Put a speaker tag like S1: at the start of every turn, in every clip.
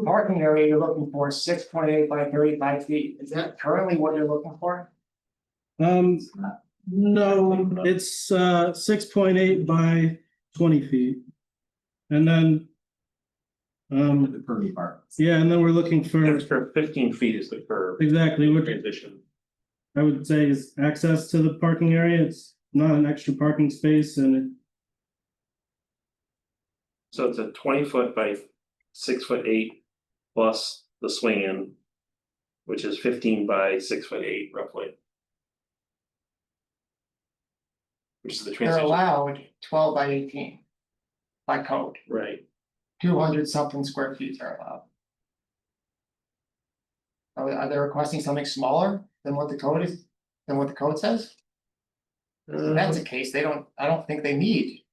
S1: Parking area you're looking for six point eight by thirty five feet, is that currently what you're looking for?
S2: Um, no, it's uh six point eight by twenty feet. And then. Um,
S3: The curvy part.
S2: yeah, and then we're looking
S4: An
S2: for,
S4: extra fifteen feet is the curb
S2: exactly, which
S4: transition.
S2: I would say is access to the parking area. It's not an extra parking space and it
S4: So it's a twenty foot by six foot eight plus the swing in. Which is fifteen by six foot eight roughly. Which is the
S1: They're
S4: transition,
S1: allowed twelve by eighteen. By code,
S4: right?
S1: two hundred something square feet are allowed. Are they- are they requesting something smaller than what the code is, than what the code says?
S4: Uh.
S1: If that's the case, they don't, I don't think they need.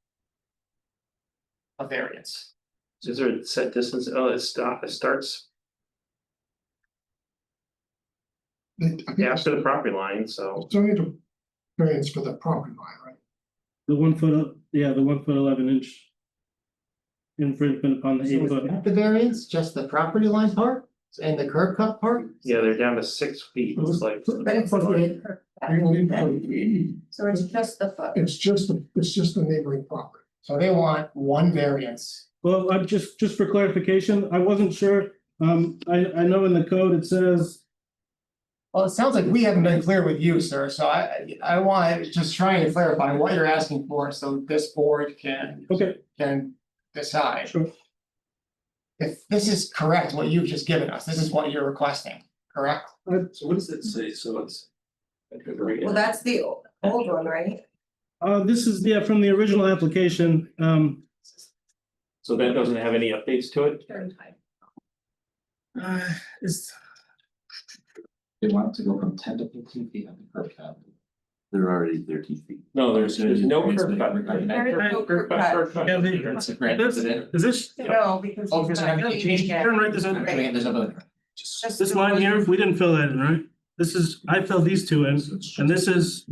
S1: A variance,
S4: Is there a set distance? Oh, it stop, it starts after the property line, so
S5: Still need a variance for the property line, right?
S2: the one foot, yeah, the one foot eleven inch. Infringement upon
S1: So
S2: the eight
S1: is
S2: foot.
S1: that the variance, just the property line part and the curb cut part?
S4: yeah, they're down to six feet. It's like.
S5: But
S6: it's
S5: Right. We need to-
S6: So it's just the foot.
S5: It's just, the- it's just the neighboring property.
S1: So they want one variance.
S2: Well, I'm just, just for clarification, I wasn't sure, um, I, I know in the code it says,
S1: Well, it sounds like we haven't been clear with you, sir, so I, I I want, just trying to clarify what you're asking for, so this board can,
S2: okay,
S1: can decide.
S2: sure,
S1: If this is correct, what you've just given us, this is what you're requesting, correct?
S3: So what does it say? So it's.
S6: Well, that's the o- old one, right?
S2: uh, this is, yeah, from the original application, um,
S4: So that doesn't have any updates to it?
S2: uh, is,
S3: They want it to go from ten to fifteen feet on the curb cut. They're already thirteen feet.
S4: No, there's, there's no curb cut.
S3: There
S6: is no curb cut.
S4: Curb cut.
S2: Yeah, they-
S3: It's a grant,
S2: That's-
S3: is it?
S2: is this,
S6: No, because.
S3: Oh, because I have to change, turn right this
S6: Right.
S3: way. There's another. one.
S2: this line here, we didn't fill that in, right? This is, I filled these two in, and this is,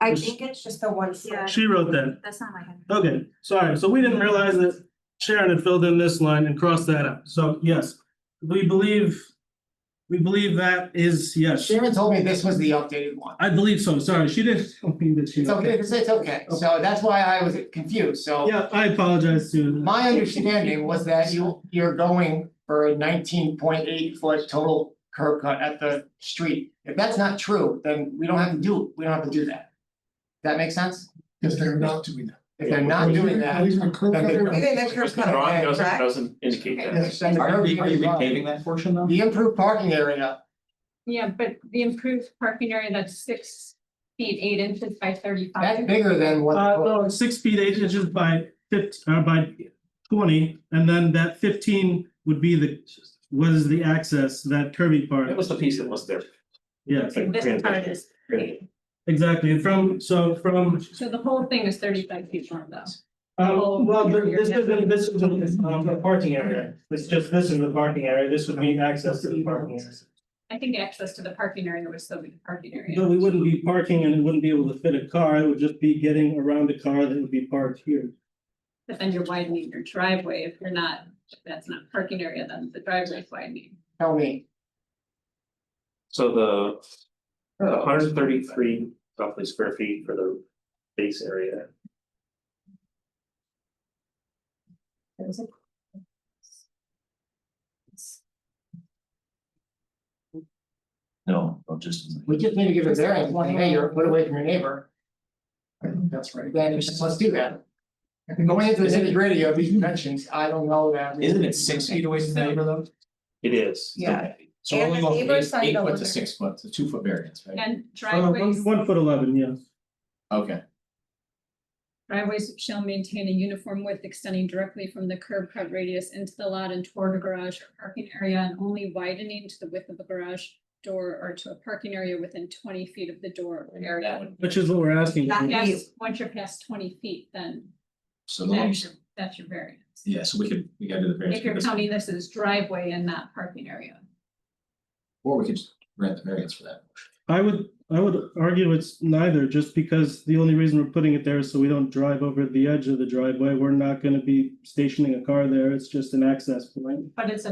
S6: I think it's just the one.
S7: Yeah.
S2: she wrote that,
S7: That's not my head.
S2: okay, sorry, so we didn't realize that Sharon had filled in this line and crossed that out, so, yes. We believe, we believe that is, yes,
S1: Sharon told me this was the updated one.
S2: I believe so, sorry, she didn't, tell me that she.
S1: It's okay, it's, it's okay, so that's why I was confused, so.
S2: Yeah, I apologize to,
S1: My understanding was that you, you're going for a nineteen point eight foot total curb cut at the street. If that's not true, then we don't have to do, we don't have to do that. That make sense?
S5: Because they're not doing that.
S1: If they're not doing that.
S5: Leaving the curb
S1: then
S5: cut
S1: they're-
S5: there.
S6: Maybe the curb
S4: Just the
S6: cut.
S4: drawing
S6: right?
S4: doesn't, doesn't indicate that.
S1: Yes, and the
S3: Are
S1: curb
S3: you,
S1: cut
S3: are you
S1: is wrong.
S3: repaving that portion though?
S1: The improved parking area,
S7: Yeah, but the improved parking area, that's six feet, eight inches by
S1: that's
S7: thirty-five.
S1: bigger than what.
S2: uh, no, it's six feet, eight inches by fifty, uh, by twenty, and then that fifteen would be the, was the access, that curvy
S4: That
S2: part,
S4: was the piece that was there.
S2: yes,
S4: Like
S7: This part is
S4: transition.
S2: exactly, from, so from,
S7: So the whole thing is thirty-five feet long though.
S2: um, well, there- this isn't, this isn't, um, the parking area. It's just, this is the parking area, this would be access to the parking area.
S7: I think access to the parking area was still be the parking
S2: But
S7: area.
S2: we wouldn't be parking and it wouldn't be able to fit a car, it would just be getting around a car that would be parked here.
S7: But then you're widening your driveway. If you're not, if that's not parking area, then the driveway's widening.
S1: Tell me,
S4: So the.
S6: Oh.
S4: hundred thirty-three roughly square feet for the base area.
S3: No, no, just.
S1: we just need to give a variance, one neighbor, put away from your neighbor. That's right. Then it's just, let's do that. Going into the nitty gritty of these dimensions, I don't know that. we-
S3: Isn't it six feet away from the neighbor though?
S4: It is.
S6: Yeah.
S3: So we're
S6: And
S3: only
S6: the
S3: going from
S6: neighbor's
S3: eight-
S6: side
S3: eight
S6: don't
S3: foot to
S6: look-
S3: six foot, it's a two foot variance, right?
S7: And
S2: Uh,
S7: driveways.
S2: one, one foot eleven, yes.
S3: Okay.
S7: Driveways shall maintain a uniform width extending directly from the curb cut radius into the lot and toward a garage or parking area and only widening to the width of the garage door or to a parking area within twenty feet of the door or
S3: That
S7: area.
S3: would-
S2: Which is what we're asking.
S6: Not yet.
S7: Yes, once you're past twenty feet, then
S3: So the,
S7: that's
S3: ones-
S7: your, that's your variance.
S3: yeah, so we could, we gotta do the variance.
S7: If you're
S3: for this,
S7: counting this as driveway and not parking area.
S3: Or we could just grant the variance for that.
S2: I would, I would argue it's neither, just because the only reason we're putting it there is so we don't drive over the edge of the driveway. We're not gonna be stationing a car there. It's just an access point.
S7: But it's a